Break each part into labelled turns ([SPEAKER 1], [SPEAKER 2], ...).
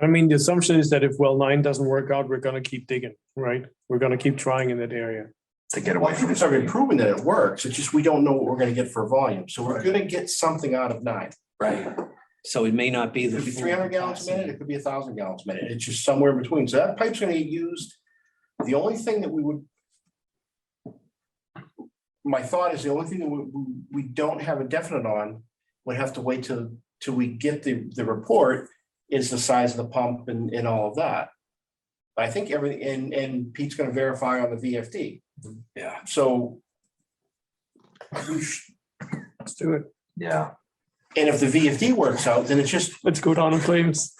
[SPEAKER 1] I mean, the assumption is that if well nine doesn't work out, we're gonna keep digging, right? We're gonna keep trying in that area.
[SPEAKER 2] to get away
[SPEAKER 3] Once
[SPEAKER 2] from
[SPEAKER 3] we
[SPEAKER 2] this.
[SPEAKER 3] start improving that it works, it's just we don't know what we're gonna get for volume, so we're gonna get something out of nine.
[SPEAKER 2] Right.
[SPEAKER 4] So it may not be
[SPEAKER 3] It
[SPEAKER 4] the.
[SPEAKER 3] could be
[SPEAKER 4] full
[SPEAKER 3] three hundred gallons a minute,
[SPEAKER 4] capacity.
[SPEAKER 3] it could be thousand gallons a minute, it's just somewhere in between, so that pipe's gonna get used. The only thing that we would. My thought is the only thing that we, we- we don't have a definite on, would have to wait till, till we get the, the report, is the size of the pump and, and all of that. But I think everything, and, and Pete's gonna verify on the VFD,
[SPEAKER 2] Yeah,
[SPEAKER 3] so. we sh-
[SPEAKER 1] Let's do it.
[SPEAKER 2] yeah.
[SPEAKER 3] And if the VFD works out, then it's just,
[SPEAKER 1] Let's go down in flames.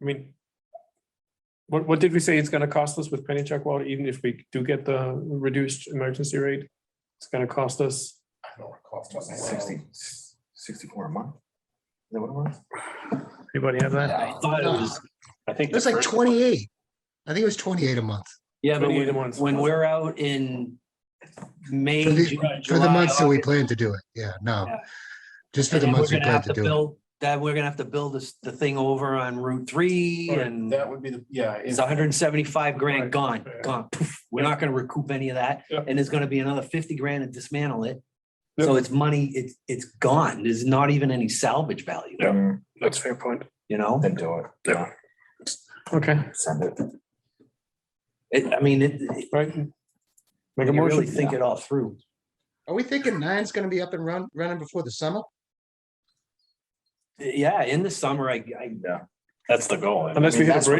[SPEAKER 1] I mean, what, what did we say it's gonna cost us with Pennachuck water, even if we do get the reduced emergency rate? It's gonna cost us,
[SPEAKER 3] I don't recall. off the top of my head.
[SPEAKER 2] Sixty, sixty-four a month. Is that what it was?
[SPEAKER 1] anybody have that?
[SPEAKER 4] I thought it was,
[SPEAKER 5] I think. It was like twenty-eight. I think it was twenty-eight a month
[SPEAKER 4] yeah, but
[SPEAKER 1] 28
[SPEAKER 4] when,
[SPEAKER 1] months.
[SPEAKER 4] when we're out in May.
[SPEAKER 5] For the-
[SPEAKER 4] Ju-
[SPEAKER 5] for the
[SPEAKER 4] July,
[SPEAKER 5] months that we
[SPEAKER 4] August,
[SPEAKER 5] plan to do it. Yeah, no.
[SPEAKER 4] Yeah.
[SPEAKER 5] Just for
[SPEAKER 4] and
[SPEAKER 5] the
[SPEAKER 4] then we're
[SPEAKER 5] months we
[SPEAKER 4] gonna
[SPEAKER 5] plan
[SPEAKER 4] have
[SPEAKER 5] to do it.
[SPEAKER 4] build- That we're gonna have to build this, the thing over on Route Three
[SPEAKER 3] Right,
[SPEAKER 4] and
[SPEAKER 3] That would be the, yeah. if-
[SPEAKER 4] it's hundred and seventy-five
[SPEAKER 1] Right.
[SPEAKER 4] grand gone,
[SPEAKER 1] Yeah.
[SPEAKER 4] gone. Poof. We're not gonna recoup any of that.
[SPEAKER 1] Yeah.
[SPEAKER 4] And there's gonna be another fifty grand to dismantle it.
[SPEAKER 1] Yeah.
[SPEAKER 4] So it's money, it's, it's gone. There's not even any salvage value,
[SPEAKER 1] Yeah.
[SPEAKER 2] Mm,
[SPEAKER 1] That's a fair point.
[SPEAKER 4] you know?
[SPEAKER 2] Then do it. Yeah,
[SPEAKER 1] Okay,
[SPEAKER 2] send it.
[SPEAKER 4] It, I mean, it, it-
[SPEAKER 1] right. Make a
[SPEAKER 4] you really
[SPEAKER 1] motion.
[SPEAKER 4] think it all through.
[SPEAKER 5] Are we thinking nine's gonna be up and run, running before the summer?
[SPEAKER 4] Yeah, in the summer, I, I
[SPEAKER 6] That's the goal. I
[SPEAKER 1] Unless we hit
[SPEAKER 6] mean,
[SPEAKER 1] a
[SPEAKER 6] that's what-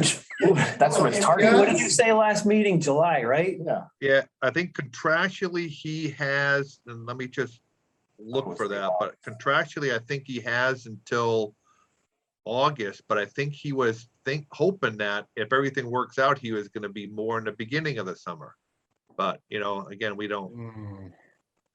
[SPEAKER 1] bridge.
[SPEAKER 2] That's what it's
[SPEAKER 4] Hey, What
[SPEAKER 2] targeted.
[SPEAKER 4] did you say last meeting, July, right?
[SPEAKER 2] Yeah.
[SPEAKER 7] Yeah, I think contractually he has, and let me just look
[SPEAKER 2] was
[SPEAKER 7] for
[SPEAKER 2] the
[SPEAKER 7] that, but contractually, I think he has until August, but I think he was think, hoping that if everything works out, he was gonna be more in the beginning of the summer. But, you know, again, we don't,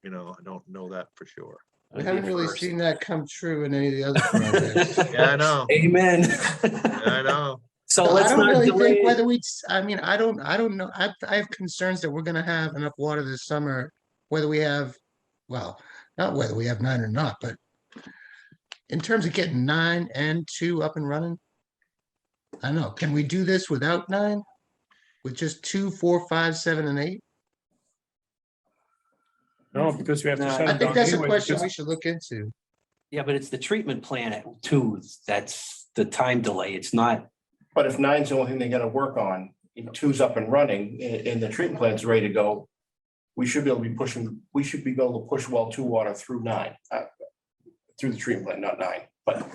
[SPEAKER 7] you know, I don't know that for sure.
[SPEAKER 5] Hmm. We haven't really
[SPEAKER 2] First.
[SPEAKER 5] seen that come true in any of the other projects.
[SPEAKER 7] Yeah, I know,
[SPEAKER 4] Amen.
[SPEAKER 7] Yeah, I know.
[SPEAKER 4] So
[SPEAKER 5] So I
[SPEAKER 4] let's
[SPEAKER 5] don't
[SPEAKER 4] not
[SPEAKER 5] really
[SPEAKER 4] delay.
[SPEAKER 5] think
[SPEAKER 4] it.
[SPEAKER 5] whether we, I mean, I don't, I don't know. I, I have concerns that we're gonna have enough water this summer, whether we have, well, not whether we have nine or not, but in terms of getting nine and two up and running, I don't know. Can we do this without nine? With just two, four, five, seven, and eight?
[SPEAKER 1] No, because we have to
[SPEAKER 4] No,
[SPEAKER 1] shut it
[SPEAKER 4] I
[SPEAKER 1] down.
[SPEAKER 5] I think that's a
[SPEAKER 1] anyway,
[SPEAKER 5] question we
[SPEAKER 1] because-
[SPEAKER 5] should look into.
[SPEAKER 4] Yeah, but it's the treatment plan at two, that's the time delay. It's not,
[SPEAKER 3] But if nine's the only thing they gotta work on, and two's up and running, and, and the treatment plant's ready to go. We should be able to be pushing, we should be able to push well two water through nine. uh, Through the treatment plant, not nine, but.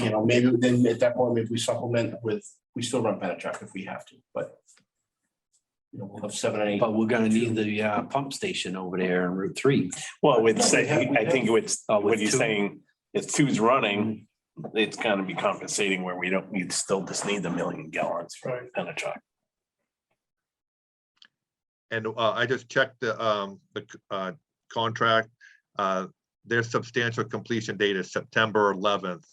[SPEAKER 3] You know, maybe then at that point, maybe we supplement with, we still run Penetrac if we have to, but. You know, we'll have seven and eight.
[SPEAKER 4] but we're gonna need the uh, pump station over there on Route Three.
[SPEAKER 6] Well, with say, I think it's,
[SPEAKER 4] Oh, with
[SPEAKER 6] what he's
[SPEAKER 4] two.
[SPEAKER 6] saying, if two's running,
[SPEAKER 1] Mm.
[SPEAKER 6] it's gonna be compensating where we don't, you'd still just need the million gallons for
[SPEAKER 1] Right.
[SPEAKER 6] Penachuk.
[SPEAKER 7] And uh, I just checked the, um, the c- uh, contract. Uh, Their substantial completion date is September eleventh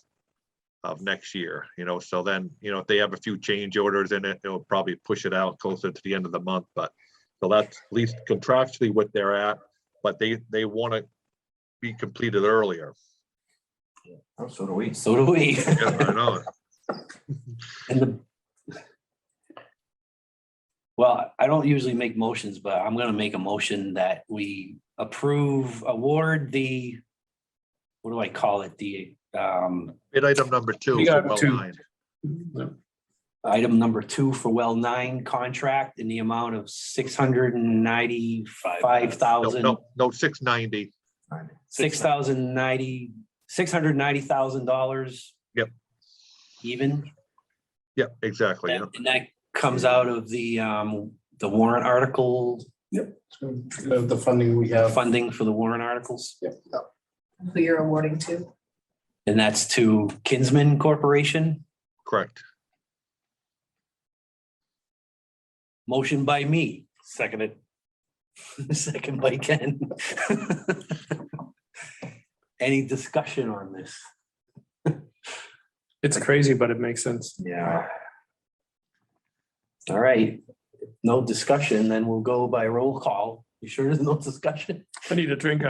[SPEAKER 7] of next year, you know, so then, you know, if they have a few change orders in it, it'll probably push it out closer to the end of the month, but so that's at least contractually what they're at, but they, they want to be completed earlier.
[SPEAKER 2] Oh, So do we.
[SPEAKER 4] So do we.
[SPEAKER 7] Yeah, I know.
[SPEAKER 4] And the. Well, I don't usually make motions, but I'm gonna make a motion that we approve, award the. What do I call it? The um,
[SPEAKER 7] Bid item number two.
[SPEAKER 1] We got
[SPEAKER 7] well
[SPEAKER 1] two.
[SPEAKER 7] lined.
[SPEAKER 4] item number two for well nine contract in the amount of six hundred and ninety-five
[SPEAKER 7] No,
[SPEAKER 4] thousand,
[SPEAKER 7] no, no, six ninety.
[SPEAKER 4] six thousand ninety, six hundred ninety thousand dollars.
[SPEAKER 7] Yep.
[SPEAKER 4] Even,
[SPEAKER 7] Yeah, exactly. yeah.
[SPEAKER 4] and that comes out of the um, the warrant article,
[SPEAKER 3] The the funding we have.
[SPEAKER 4] funding for the warrant articles.
[SPEAKER 8] who you're awarding to.
[SPEAKER 4] And that's to Kinsman Corporation,
[SPEAKER 7] Correct.
[SPEAKER 4] motion by me,
[SPEAKER 6] Seconded.
[SPEAKER 4] second by Ken. Any discussion on this?
[SPEAKER 1] It's crazy, but it makes sense.
[SPEAKER 2] Yeah.
[SPEAKER 4] All right, no discussion, then we'll go by roll call. You sure there's no discussion?
[SPEAKER 1] I need a drink